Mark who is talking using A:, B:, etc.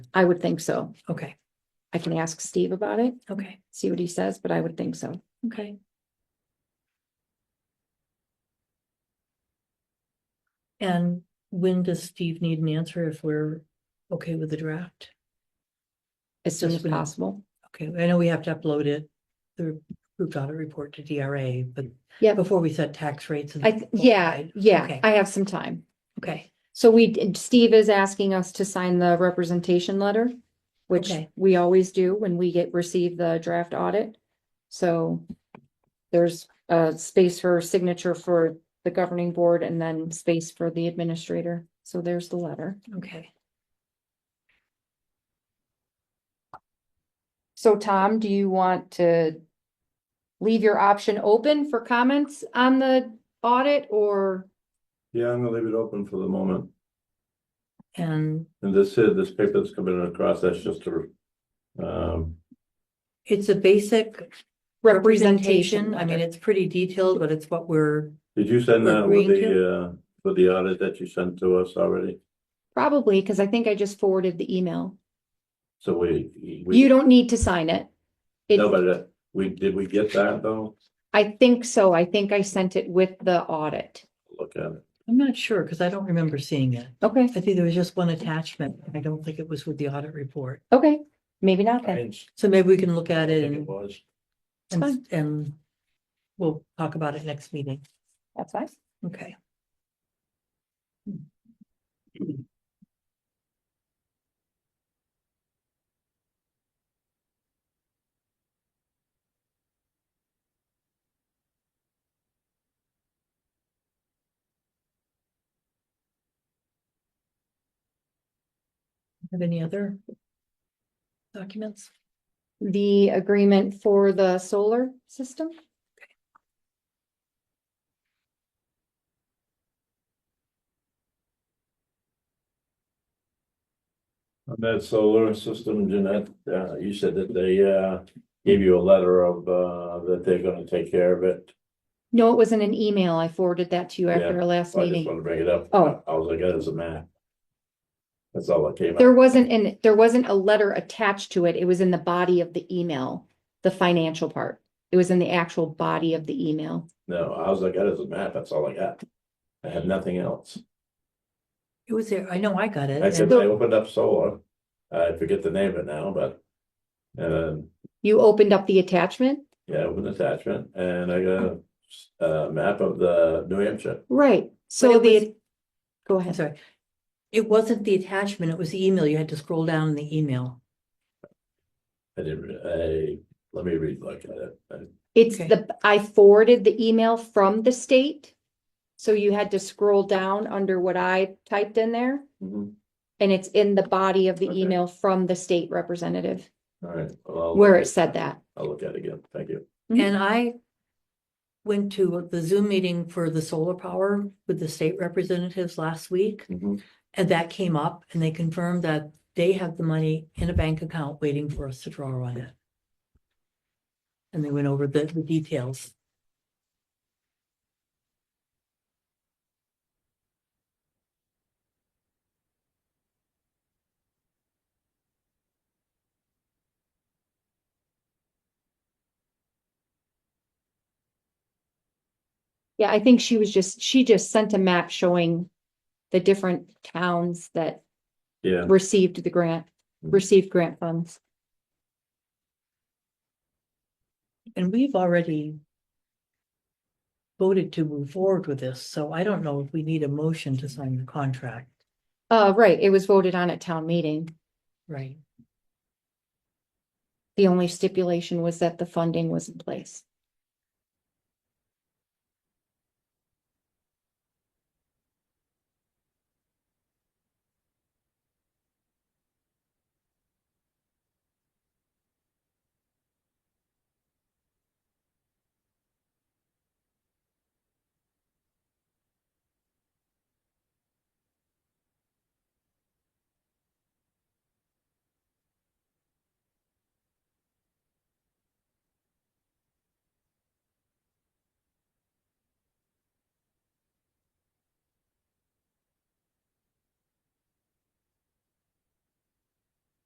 A: I would think so.
B: Okay,
A: I can ask Steve about it,
B: okay,
A: see what he says, but I would think so.
B: okay. And when does Steve need an answer if we're okay with the draft?
A: As soon as
B: Yes, ma'am.
A: possible.
B: Okay, I know we have to upload it, the approved audit report to DRA, but
A: Yeah.
B: before we set tax rates. and
A: I, th- yeah,
B: override.
A: yeah,
B: Okay,
A: I have some time.
B: Okay,
A: So we, and Steve is asking us to sign the representation letter, which
B: Okay.
A: we always do when we get, receive the draft audit. So there's a space for signature for the governing board and then space for the administrator. So there's the letter.
B: okay.
A: So Tom, do you want to leave your option open for comments on the audit or?
C: Yeah, I'm gonna leave it open for the moment.
B: And
C: And this here, this paper that's coming across, that's just a. Um,
B: it's a basic representation. I mean, it's pretty detailed, but it's what we're,
C: did you send that with
B: Agreeing to?
C: the, uh, with the audit that you sent to us already?
A: Probably, because I think I just forwarded the email.
C: So we. we-
A: You don't need to sign it. It,
C: No, but uh, we, did we get that though?
A: I think so. I think I sent it with the audit.
C: Look at it.
B: I'm not sure, because I don't remember seeing it.
A: Okay,
B: I think there was just one attachment. I don't think it was with the audit report.
A: okay, maybe not then.
B: So maybe we can look at it and,
C: was.
B: and, and we'll talk about it next meeting.
A: That's fine.
B: Okay. Have any other documents?
A: The agreement for the solar system?
C: On that solar system, Jeanette, uh, you said that they, uh, gave you a letter of, uh, that they're gonna take care of it.
A: No, it wasn't an email. I forwarded that to you after
C: Yeah,
A: our last
C: I just
A: meeting.
C: wanna bring it up.
A: Oh.
C: I was like, that is a map. That's all that came. up.
A: There wasn't an, there wasn't a letter attached to it. It was in the body of the email, the financial part. It was in the actual body of the email.
C: No, I was like, that is a map, that's all I got. I have nothing else.
B: It was there. I know I got it.
C: I said,
B: and-
C: I opened up solar. I forget the name of it now, but. And,
A: You opened up the attachment?
C: yeah, open attachment and I got a, a map of the New Hampshire.
A: Right, so
B: it was-
A: the, go
B: I'm
A: ahead.
B: sorry. It wasn't the attachment, it was the email. You had to scroll down in the email.
C: I didn't, re- I, let me read like that. I-
A: It's
B: Okay.
A: the, I forwarded the email from the state. So you had to scroll down under what I typed in there,
C: mhm.
A: and it's in the body of the
C: Okay.
A: email from the state representative,
C: All right. well, I'll-
A: where it said that.
C: I'll look at it again, thank you.
A: Mhm.
B: And I went to the Zoom meeting for the solar power with the state representatives last week.
C: Mhm.
B: And that came up and they confirmed that they have the money in a bank account waiting for us to draw on it. And they went over the, the details.
A: Yeah, I think she was just, she just sent a map showing the different towns that
C: Yeah,
A: received the grant,
C: Mhm.
A: received grant funds.
B: And we've already voted to move forward with this, so I don't know if we need a motion to sign the contract,
A: Uh, right, it was voted on at town meeting.
B: right?
A: The only stipulation was that the funding was in place.